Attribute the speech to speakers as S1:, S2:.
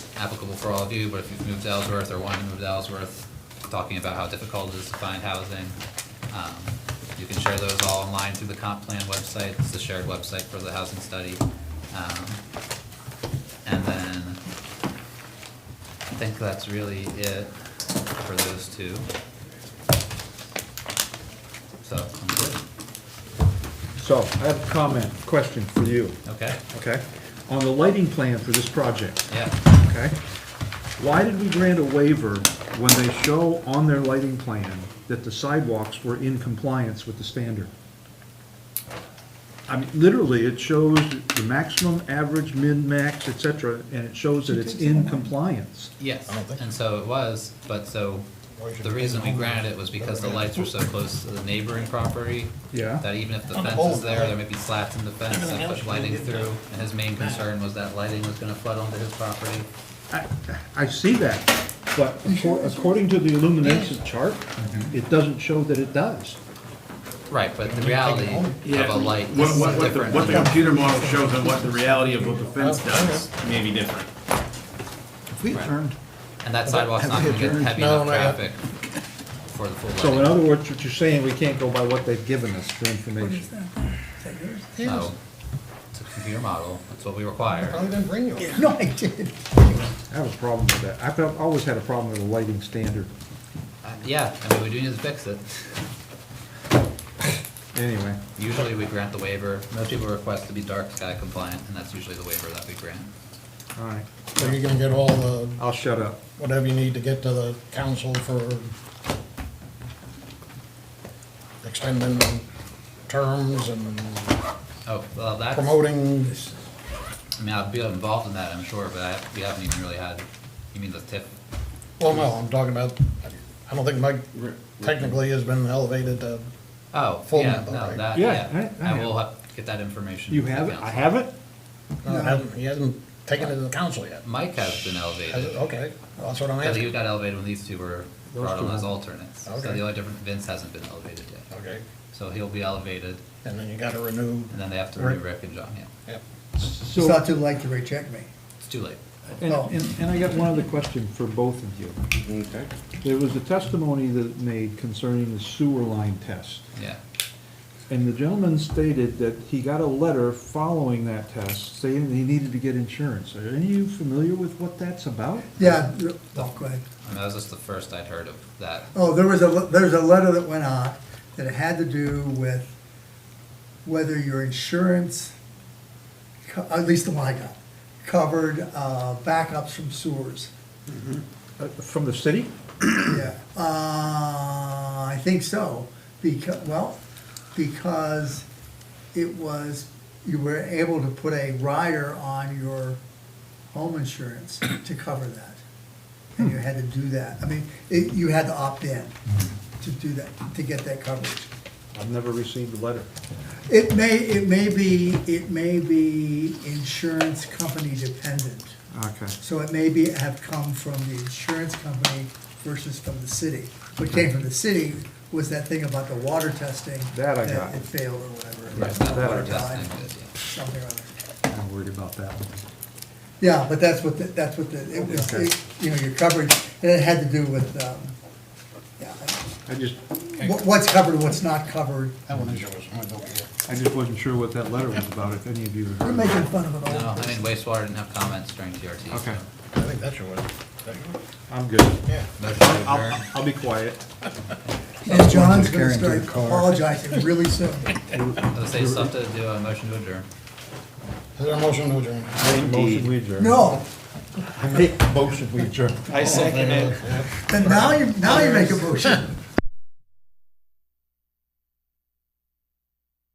S1: applicable for all of you, but if you've moved to Ellsworth or want to move to Ellsworth, talking about how difficult it is to find housing. Um, You can share those all online through the comp plan website, it's the shared website for the housing study. Um, And then, I think that's really it for those two. So, I'm good,
S2: So I have a comment, question for you,
S1: okay,
S2: okay? On the lighting plan for this project,
S1: yeah,
S2: okay? Why did we grant a waiver when they show on their lighting plan that the sidewalks were in compliance with the standard? I mean, literally, it shows the maximum, average, min-max, et cetera, and it shows that it's in compliance.
S1: yes,
S3: I don't think-
S1: and so it was, but so, the reason we granted it was because the lights were so close to the neighboring property.
S2: Yeah.
S1: That even if the
S3: On the
S1: fence is
S3: old
S1: there,
S3: one.
S1: there may be slats in the fence
S3: Everything
S1: that
S3: else
S1: put
S3: you
S1: lighting
S3: did,
S1: through,
S3: though.
S1: and his main concern was that lighting was gonna flood onto his property.
S2: I, I see that, but accor- according to the illumination chart,
S3: Mm-hmm.
S2: it doesn't show that it does.
S1: Right, but the reality of a light is
S4: What, what, what the,
S1: different.
S4: what the computer model shows and what the reality of what the fence does may be different.
S3: We
S1: Right.
S3: turned.
S1: And that sidewalk's not gonna get heavy
S3: No,
S1: enough
S3: no, yeah.
S1: traffic for the full
S2: So in
S1: lighting.
S2: other words, what you're saying, we can't go by what they've given us for information.
S1: So, it's a computer model, that's what we require.
S3: didn't bring you. one.
S2: No, I did. I have a problem with that. I've got- always had a problem with the lighting standard.
S1: Uh, Yeah, I mean, we do need to fix it.
S2: Anyway,
S1: Usually we grant the waiver, most people request to be dark sky compliant, and that's usually the waiver that we grant.
S2: all right,
S3: So you're gonna get all the,
S2: I'll shut up.
S3: whatever you need to get to the council for extending terms and
S1: Oh, well, that's.
S3: promoting,
S1: I mean, I'd be involved in that, I'm sure, but I, we haven't even really had, you mean the TIF?
S3: well, no, I'm talking about, I don't think Mike technically has been elevated to,
S1: Oh,
S3: Full
S1: yeah,
S3: member,
S1: no,
S3: right?
S1: that,
S2: Yeah,
S1: yeah,
S2: I- I
S1: I
S2: have
S1: will ha- get that information.
S2: You
S1: to the
S2: have it? I
S1: council.
S2: have it?
S3: no, hasn't- he hasn't taken it to the council yet.
S1: Mike has been
S3: Has
S1: elevated,
S3: it? Okay, well, that's what I'm
S1: but he
S3: asking.
S1: got elevated when these two were
S2: Those
S1: brought
S2: two
S1: on as
S2: were-
S1: alternates. So
S3: Okay.
S1: the only difference, Vince hasn't been elevated yet,
S3: Okay,
S1: so he'll be elevated,
S3: and then you gotta renew,
S1: and then they have to
S3: Right.
S1: renew Rick and John, yeah,
S3: yep.
S5: It's
S2: So,
S5: not too late to reject me.
S1: it's too late.
S2: and, and- and I got one other question for both of you.
S4: Okay.
S2: There was a testimony that made concerning the sewer line test.
S1: Yeah,
S2: And the gentleman stated that he got a letter following that test saying that he needed to get insurance. Are any of you familiar with what that's about?
S5: Yeah, oh, go ahead.
S1: and that was just the first I'd heard of that,
S5: Oh, there was a, there's a letter that went out that it had to do with whether your insurance, co- at least the one I got, covered uh, backups from sewers.
S2: Uh, From the city?
S5: Yeah, uh, I think so, because, well, because it was, you were able to put a rider on your home insurance to cover that. And you had to do that, I mean, it, you had to opt in to do that, to get that coverage.
S2: I've never received a letter.
S5: It may, it may be, it may be insurance company dependent,
S2: Okay.
S5: so it may be, have come from the insurance company versus from the city. What came from the city was that thing about the water testing.
S2: That I got.
S5: It failed or whatever.
S1: Right, that
S2: water
S5: Water died,
S1: testing, yeah.
S5: Something or other.
S2: I'm worried about that one.
S5: Yeah, but that's what, the- that's what the, it was,
S2: Okay.
S5: it- you know, your coverage, and it had to do with, um, yeah,
S2: I just,
S5: what- what's covered, what's not covered.
S3: That one is yours, I don't care.
S2: I just wasn't sure what that letter was about, if any of you
S5: You're
S2: had heard.
S5: making fun of it all.
S1: No, I mean wastewater didn't have comments during TRT, so.
S2: Okay.
S3: I think that's yours. Is that yours?
S2: I'm good.
S3: Yeah.
S1: Motion to adjourn.
S2: I'll, I'll be quiet.
S5: And John's gonna
S3: Carrying to
S5: start
S3: the car.
S5: apologizing really soon.
S1: Let's say stuff to do, a motion to adjourn.
S3: Is there a motion to adjourn?
S2: Motion we adjourn.
S5: No,
S3: Motion to adjourn. I second it.
S5: and now you, now you make a motion.